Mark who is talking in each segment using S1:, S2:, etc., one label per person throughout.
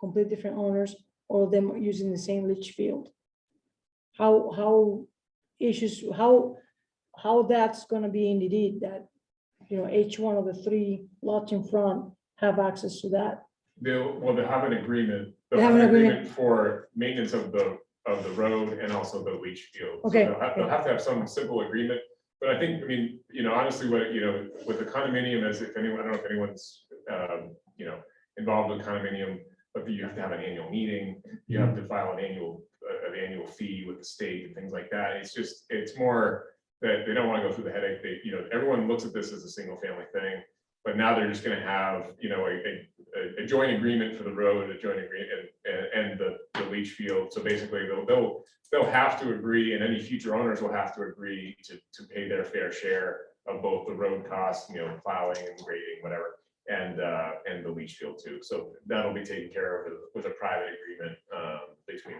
S1: complete different owners, all of them are using the same leach field. How, how issues, how, how that's gonna be in the deed that, you know, each one of the three lots in front have access to that.
S2: They'll, well, they have an agreement.
S1: They have an agreement.
S2: For maintenance of the, of the road and also the leach field. So
S1: Okay.
S2: They'll have they'll have to have some simple agreement, but I think, I mean, you know, honestly, what, you know, with the condominium is if anyone, I don't know if anyone's, um, you know, involved with condominium, but you have to have an annual meeting, you have to file an annual, uh, an annual fee with the state and things like that. It's just, it's more that they don't want to go through the headache. They, you know, everyone looks at this as a single family thing. But now they're just gonna have, you know, a, a a, a joint agreement for the road, a joint agreement and, and the, the leach field. So basically, they'll, they'll, they'll have to agree and any future owners will have to agree to, to pay their fair share of both the road costs, you know, plowing and grading, whatever, and, uh, and the leach field too. So that'll be taken care of with a private agreement, um, between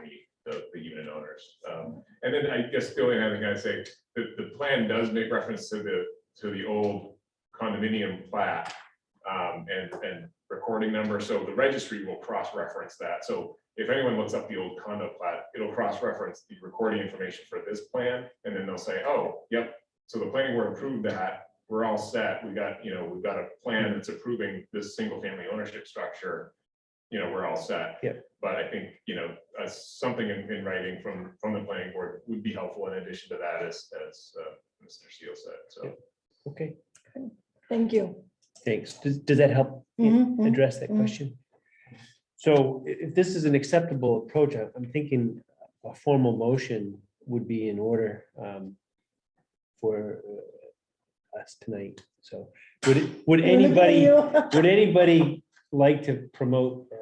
S2: the, the, the unit owners. Um, and then I guess the only other thing I'd say, the, the plan does make reference to the, to the old condominium plat um, and, and recording number, so the registry will cross-reference that, so if anyone looks up the old condo plat, it'll cross-reference the recording information for this plan, and then they'll say, oh, yep, so the planning board approved that, we're all set, we got, you know, we've got a plan that's approving this single-family ownership structure, you know, we're all set.
S3: Yep.
S2: But I think, you know, uh, something in, in writing from, from the planning board would be helpful in addition to that, as, as uh, Mr. Steele said, so.
S3: Okay,
S1: Thank you.
S3: thanks. Does, does that help
S1: Mhm, mhm.
S3: address that
S1: mhm.
S3: question? So i- if this is an acceptable approach, I- I'm thinking a formal motion would be in order um, for uh, us tonight. So would, it- would
S1: Look at
S3: anybody,
S1: you.
S3: would anybody like to promote uh,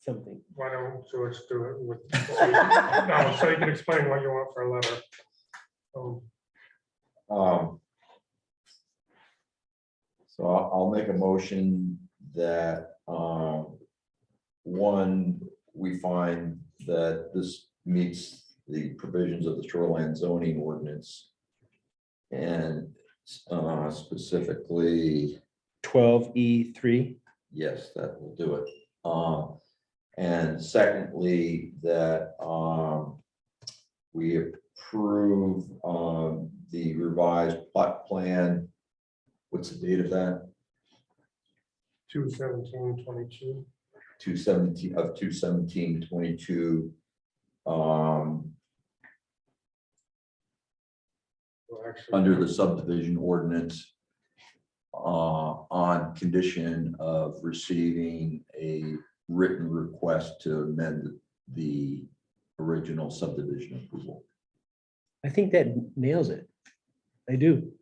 S3: something?
S4: Why don't George do it with? No, so you can explain what you want for a letter. Um,
S5: Um. So I'll, I'll make a motion that, um. One, we find that this meets the provisions of the shoreline zoning ordinance. And, uh, specifically,
S3: Twelve E three,
S5: yes, that will do it. Um, and secondly, that, um. We approve, um, the revised plot plan. What's the date of that?
S4: Two seventeen twenty-two.
S5: Two seventeen, of two seventeen twenty-two. Um,
S4: well, actually,
S5: under the subdivision ordinance. Uh, on condition of receiving a written request to amend the original subdivision approval.
S3: I think that nails it. I do.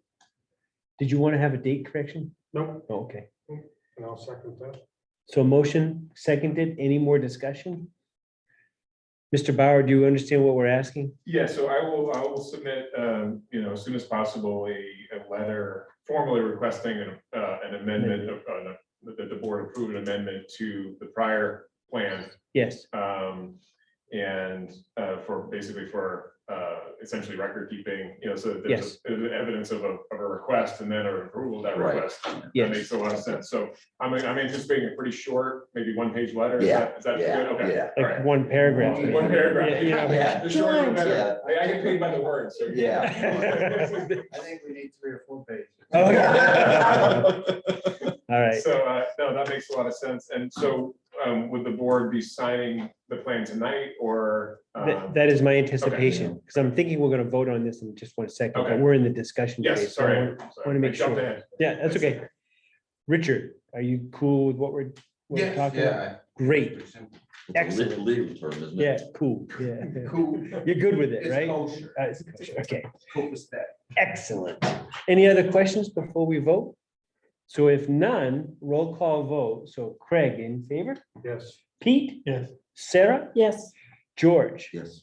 S3: Did you want to have a date correction?
S4: Nope,
S3: Oh, Okay.
S4: and I'll second that.
S3: So motion seconded. Any more discussion? Mr. Bauer, do you understand what we're asking?
S2: Yeah, so I will, I will submit, um, you know, as soon as possible, a, a letter formally requesting an, uh, an amendment of, uh, that the board approve an amendment to the prior plan.
S3: Yes,
S2: Um, and, uh, for, basically for, uh, essentially record keeping, you know, so that there's
S3: Yes.
S2: a- there's evidence of a, of a request and then a approval of that
S5: Right.
S2: request. That
S3: yes.
S2: makes a lot of sense. So I'm, I'm anticipating a pretty short, maybe one-page letter. Is
S5: Yeah,
S2: that- Is that good?
S5: Yeah,
S2: Okay.
S5: yeah,
S2: All right.
S3: Like one paragraph.
S2: One paragraph.
S3: Yeah, yeah.
S5: yeah.
S2: The shorter the
S1: Sure.
S2: better. I I get paid by the word, so.
S5: Yeah.
S6: I think we need three or four pages.
S3: Okay. All right,
S2: So, uh, no, that makes a lot of sense. And so, um, would the board be signing the plan tonight or?
S3: That-
S2: um,
S3: that is my anticipation, because I'm thinking we're gonna vote on this in just one second, but
S2: Okay.
S3: we're in the discussion. phase,
S2: Yes,
S3: so I
S2: sorry.
S3: want-
S2: sorry,
S3: wanna
S2: I
S3: make
S2: jumped
S3: sure.
S2: ahead.
S3: Yeah, that's okay. Richard, are you cool with what we're, what we're talking about? Great,
S5: It's a
S3: Excellent.
S5: legal term, isn't
S3: yeah,
S5: it?
S3: cool, yeah.
S6: Cool.
S3: You're good with it,
S6: It's
S3: right?
S6: kosher.
S3: Uh, it's kosher, Okay.
S6: Cool as that.
S3: Excellent. Any other questions before we vote? So if none, roll call vote. So Craig in favor,
S4: Yes.
S3: Pete?
S4: Yes.
S3: Sarah?
S1: Yes,
S3: George?
S5: Yes.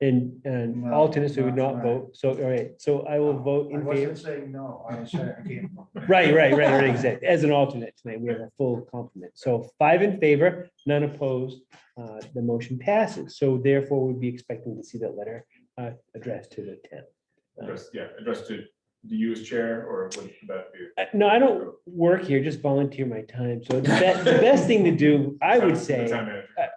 S3: And, and
S6: No,
S3: alternates who would
S6: not
S3: not
S6: tonight.
S3: vote. So, all right, so I will vote
S6: I
S3: in favor.
S6: wasn't saying no, I was saying again.
S3: Right, right, right, right, exactly. As an alternate tonight, we have a full complement. So five in favor, none opposed. uh, The motion passes. So therefore, we'd be expecting to see that letter uh, addressed to the town. Uh,
S2: Address- Yeah, addressed to do you as chair or would that be?
S3: Uh, No, I don't work here, just volunteer my time. So the be- the best thing to do, I would
S2: The
S3: say.
S2: town manager.